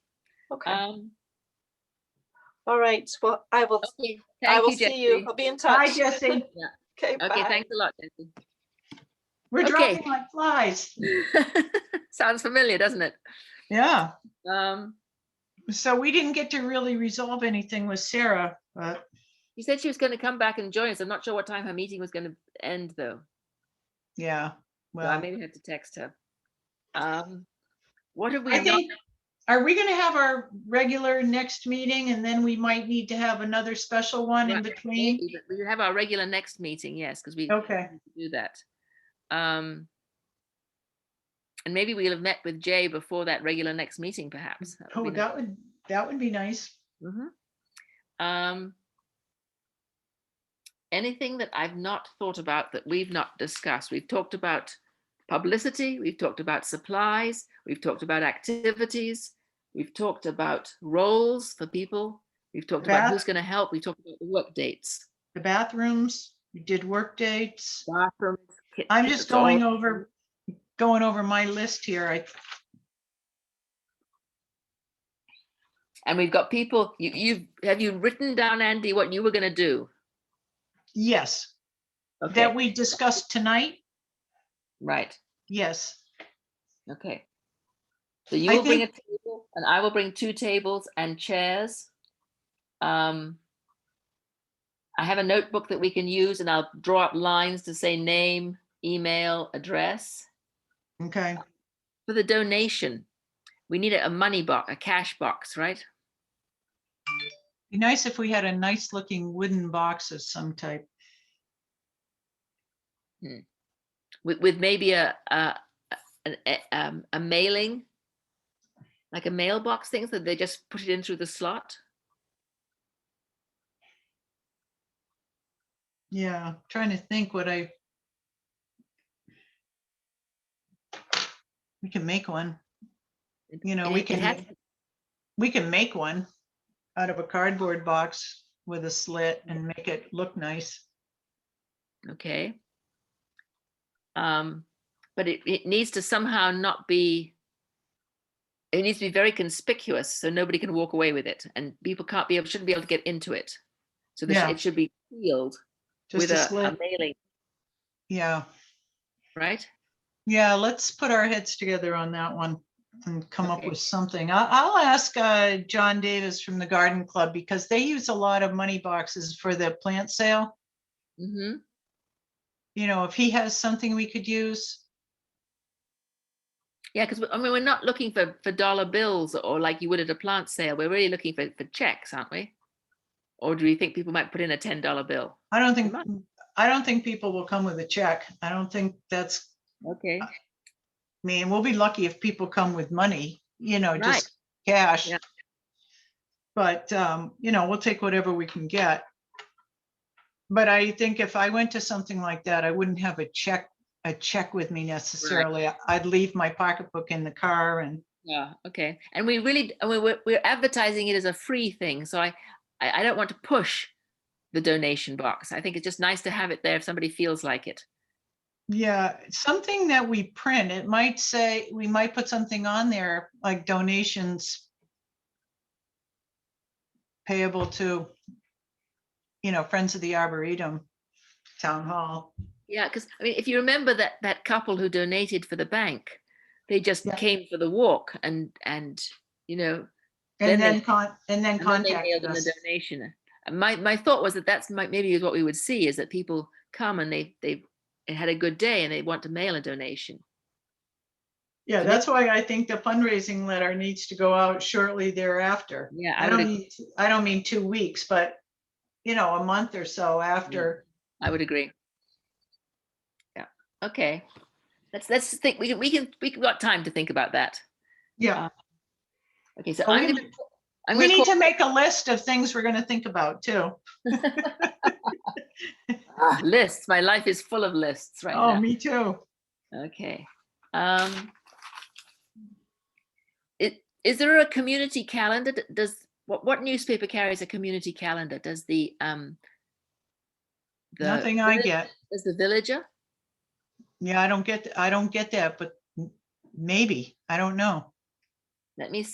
Okay, Um, all right. Well, I will, okay, I thank will you, see you. Jessie. I'll be in Hi, touch. Jesse. Okay, Okay, bye. thanks a lot, Jessie. We're Okay. dropping like flies. Sounds familiar, doesn't it? Yeah. Um, So we didn't get to really resolve anything with Sarah, but she said she was gonna come back and join us. I'm not sure what time her meeting was gonna end, though. yeah. So I Well, maybe have to text her. Um, what have we I not? think, are we going to have our regular next meeting and then we might need to have another special one in Right. between? maybe, but We have our regular next meeting, yes, because we Okay. need to do that. Um, and maybe we'll have met with Jay before that regular next meeting, perhaps. That would be Oh, nice. that would, that would be nice. Mhm. Mm-hmm. Um, anything that I've not thought about that we've not discussed? We've talked about publicity, we've talked about supplies, we've talked about activities, we've talked about roles for people, we've talked about Beth? who's going to help, we've talked about the work dates. The bathrooms, we did work dates. bathrooms, I'm kitchens, just going all- over, going over my list here. I, And we've got people, you, you, have you written down, Andy, what you were going to do? yes, that Okay, we discussed tonight. right, Yes. okay. So you I will bring a table and I will bring two tables and chairs. Um, I have a notebook that we can use and I'll draw up lines to say name, email, address. Okay. For the donation, we need a a money box, a cash box, right? Be nice if we had a nice looking wooden box of some type. with with maybe a a a, a, um, a mailing like a mailbox thing so they just put it in through the slot Yeah, trying to think what I. We can make one. You know, And we it- it has- can, we can make one out of a cardboard box with a slit and make it look nice. okay um but it, it needs to somehow not be it needs to be very conspicuous so nobody can walk away with it and people can't be able shouldn't be able to get into it so this Yeah. it should be sealed Just with a a, a slit. mailing Yeah, right yeah, let's put our heads together on that one and come up Okay. with something. I, I'll ask, uh, John Davis from the Garden Club because they use a lot of money boxes for the plant sale. mm-hmm. you know, if he has something we could use. Yeah, because I mean, we're not looking for for dollar bills or like you would at a plant sale. We're really looking for for checks, aren't we? Or do you think people might put in a ten dollar bill? I don't think, might. I don't think people will come with a check. I don't think that's, Okay. I mean, we'll be lucky if people come with money, you know, Right. just cash. Yeah. But, um, you know, we'll take whatever we can get. But I think if I went to something like that, I wouldn't have a check, a check with me necessarily. I'd leave my pocketbook in the car and, Yeah. Okay. And we really, and we we're, we're advertising it as a free thing. So I, I, I don't want to push the donation box. I think it's just nice to have it there if somebody feels like it. yeah, something that we print, it might say, we might put something on there like donations payable to, you know, Friends of the Arboretum Town Hall. Yeah, because I mean, if you remember that that couple who donated for the bank, they just Yeah. came for the walk and and you know Then And they- then con, and then And then they mailed contact in us. the donation. And my, my thought was that that's might maybe is what we would see is that people come and they, they had a good day and they want to mail a donation. Yeah, and that's why I think the fundraising letter needs to go out shortly thereafter. Yeah, I I would, don't ag- mean, I don't mean two weeks, but, you know, a month or so after. I would agree. Yeah, okay. Let's, let's think, we can, we can, we can- got time to think about that. Um, Yeah, Okay, so Are Oh, we I'm gonna- gonna, I'm we gonna need call, to make a list of things we're going to think about too. ah, lists. My life is full of lists right Oh, now. me too. Okay. Um. It, is there a community calendar? D- Does, what, what newspaper carries a community calendar? Does the, um, the Nothing I Vill- get. Does the Villager? Yeah, I don't get, I don't get that, but m- maybe, I don't know. Let me